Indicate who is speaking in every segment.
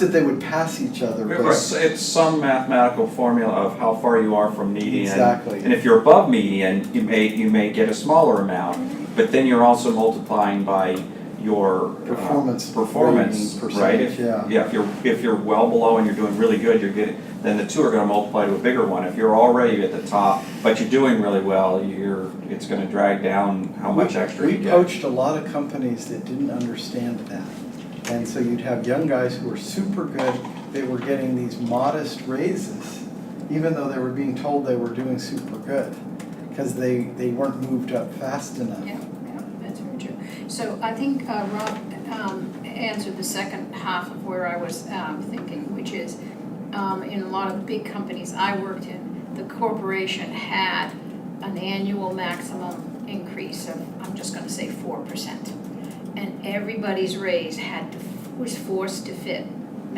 Speaker 1: that they would pass each other,
Speaker 2: It's,
Speaker 1: but
Speaker 2: it's some mathematical formula of how far you are from median.
Speaker 1: Exactly.
Speaker 2: And if you're above median, you may, you may get a smaller amount, but then you're also multiplying by your. uh,
Speaker 1: Performance
Speaker 2: Performance,
Speaker 1: rating
Speaker 2: right?
Speaker 1: percentage,
Speaker 2: If-
Speaker 1: yeah.
Speaker 2: Yeah, if you're, if you're well below and you're doing really good, you're getting, then the two are gonna multiply to a bigger one. If you're already at the top, but you're doing really well, you're, it's gonna drag down how much extra
Speaker 1: we
Speaker 2: you get.
Speaker 1: poached a lot of companies that didn't understand that. And so you'd have young guys who were super good, they were getting these modest raises, even though they were being told they were doing super good, because they, they weren't moved up fast enough.
Speaker 3: Yeah, yeah, that's very true. So I think uh, Rob um, answered the second half of where I was um, thinking, which is um, in a lot of big companies I worked in, the corporation had an annual maximum increase of, I'm just gonna say four percent. And everybody's raise had to, was forced to fit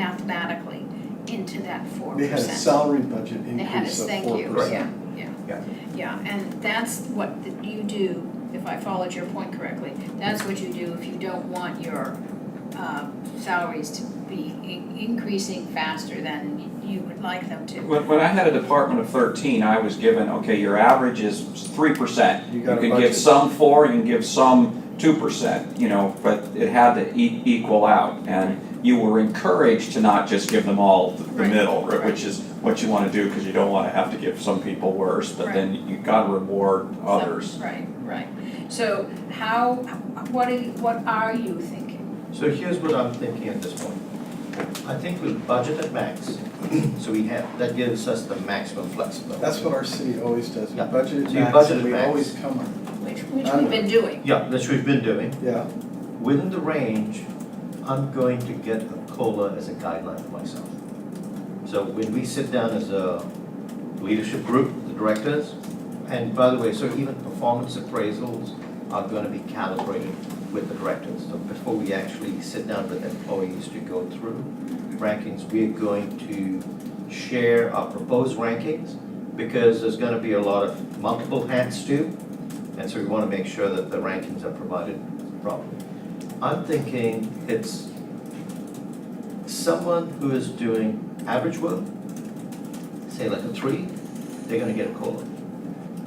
Speaker 3: mathematically into that four
Speaker 1: They
Speaker 3: percent.
Speaker 1: had a salary budget
Speaker 3: They had
Speaker 1: increase
Speaker 3: us,
Speaker 1: of
Speaker 3: thank
Speaker 1: four
Speaker 3: you,
Speaker 1: percent.
Speaker 3: yeah, yeah.
Speaker 4: Yeah.
Speaker 3: Yeah, and that's what th- you do, if I followed your point correctly, that's what you do if you don't want your um, salaries to be in- increasing faster than y- you would like them to.
Speaker 2: When, when I had a department of thirteen, I was given, okay, your average is three percent.
Speaker 1: You
Speaker 2: You
Speaker 1: got a
Speaker 2: can
Speaker 1: budget.
Speaker 2: give some four, you can give some two percent, you know, but it had to e- equal out. And you were encouraged to not just give them all the the
Speaker 3: Right.
Speaker 2: middle, right,
Speaker 3: Right.
Speaker 2: which is what you wanna do, cause you don't wanna have to give some people worse, but
Speaker 3: Right.
Speaker 2: then you gotta reward others.
Speaker 3: So- Right, right. So how, what are, you- what are you thinking?
Speaker 4: So here's what I'm thinking at this point. I think we budget at max, so we have, that gives us the maximum flexibility.
Speaker 1: That's what our city always does, we
Speaker 4: Yeah.
Speaker 1: budget
Speaker 4: So
Speaker 1: it
Speaker 4: you
Speaker 1: max
Speaker 4: budget
Speaker 1: and
Speaker 4: it
Speaker 1: we
Speaker 4: max.
Speaker 1: always come up,
Speaker 3: Which, which we've been doing.
Speaker 4: Yeah, that's what we've been doing.
Speaker 1: yeah.
Speaker 4: Within the range, I'm going to get a COLA as a guideline for myself. So when we sit down as a leadership group, the directors, and by the way, so even performance appraisals are gonna be calibrated with the directors. So before we actually sit down with employees to go through rankings, we are going to share our proposed rankings because there's gonna be a lot of multiple hats too. And so we wanna make sure that the rankings are provided properly. I'm thinking it's someone who is doing average work, say like a three, they're gonna get a COLA.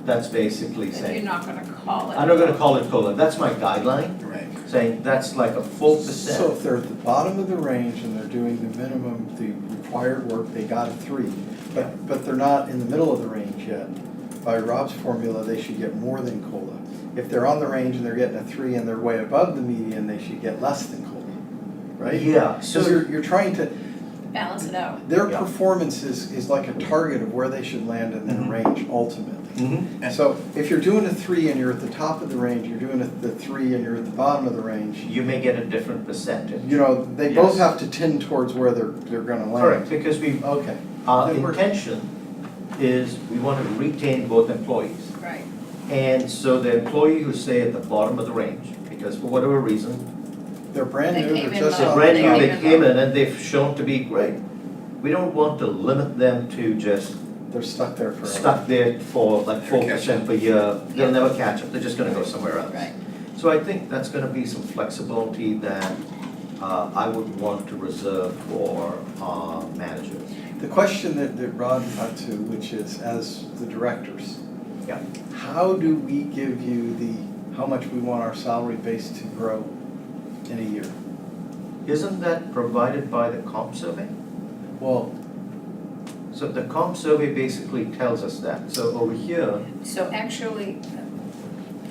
Speaker 4: That's basically
Speaker 3: But you're
Speaker 4: saying,
Speaker 3: not gonna call it.
Speaker 4: I'm not gonna call it COLA, that's my guideline,
Speaker 1: Right.
Speaker 4: saying that's like a full percent.
Speaker 1: So if they're at the bottom of the range and they're doing the minimum, the required work, they got a three.
Speaker 4: Yeah.
Speaker 1: But, but they're not in the middle of the range yet. By Rob's formula, they should get more than COLA. If they're on the range and they're getting a three and they're way above the median, they should get less than COLA, right?
Speaker 4: Yeah,
Speaker 1: So
Speaker 4: so,
Speaker 1: you're, you're trying to,
Speaker 3: Balance it out.
Speaker 1: their
Speaker 4: Yeah.
Speaker 1: performance is, is like a target of where they should land in
Speaker 4: Mm-hmm.
Speaker 1: their range ultimately.
Speaker 4: Mhm.
Speaker 1: So if you're doing a three and you're at the top of the range, you're doing a- the three and you're at the bottom of the range,
Speaker 4: you may get a different percentage.
Speaker 1: You know, they both
Speaker 4: Yes.
Speaker 1: have to tend towards where they're, they're gonna land.
Speaker 4: Correct, because we,
Speaker 1: Okay,
Speaker 4: our
Speaker 1: That works.
Speaker 4: intention is we wanna retain both employees.
Speaker 3: Right,
Speaker 4: And so the employee who stay at the bottom of the range, because for whatever reason,
Speaker 1: they're brand
Speaker 3: They
Speaker 1: new,
Speaker 3: came
Speaker 1: they're
Speaker 3: in
Speaker 1: just.
Speaker 3: low.
Speaker 4: they're
Speaker 1: on
Speaker 4: brand new,
Speaker 1: top.
Speaker 4: they came in and they've shown to be great. We don't want to limit them to just
Speaker 1: They're stuck there forever.
Speaker 4: stuck there for like four percent per year. They'll never catch up, they're just gonna go somewhere else.
Speaker 3: right.
Speaker 4: So I think that's gonna be some flexibility that uh, I would want to reserve for our managers.
Speaker 1: The question that, that Rod got to, which is as the directors.
Speaker 4: Yeah.
Speaker 1: How do we give you the, how much we want our salary base to grow in a year?
Speaker 4: Isn't that provided by the comp survey?
Speaker 1: Well,
Speaker 4: So the comp survey basically tells us that. So over here,
Speaker 3: So actually,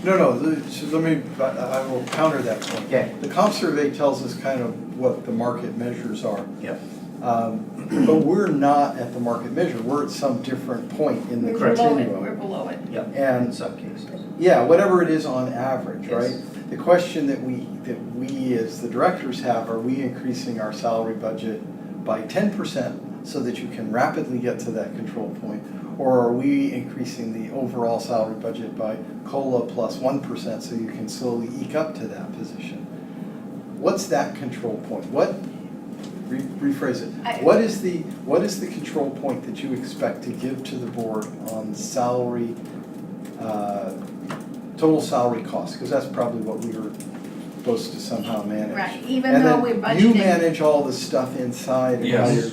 Speaker 1: no, no, the- so let me, I, I will counter that point.
Speaker 4: okay,
Speaker 1: The comp survey tells us kind of what the market measures are.
Speaker 4: Yep.
Speaker 1: Um, But we're not at the market measure, we're at some different point in the
Speaker 3: we're below it, we're
Speaker 1: continuum.
Speaker 3: below it.
Speaker 4: Yeah, in
Speaker 1: And,
Speaker 4: some cases.
Speaker 1: yeah, whatever it is on average, right?
Speaker 4: Yes.
Speaker 1: The question that we, that we as the directors have, are we increasing our salary budget by ten percent so that you can rapidly get to that control point? Or are we increasing the overall salary budget by COLA plus one percent so you can slowly eke up to that position? What's that control point? What, re- rephrase
Speaker 3: I-
Speaker 1: it, what is the, what is the control point that you expect to give to the board on salary, uh, total salary cost? Because that's probably what we were supposed to somehow manage.
Speaker 3: Right, even
Speaker 1: And
Speaker 3: though
Speaker 1: then
Speaker 3: we're budgeting.
Speaker 1: You manage all the stuff inside of how
Speaker 2: Yes.
Speaker 1: you're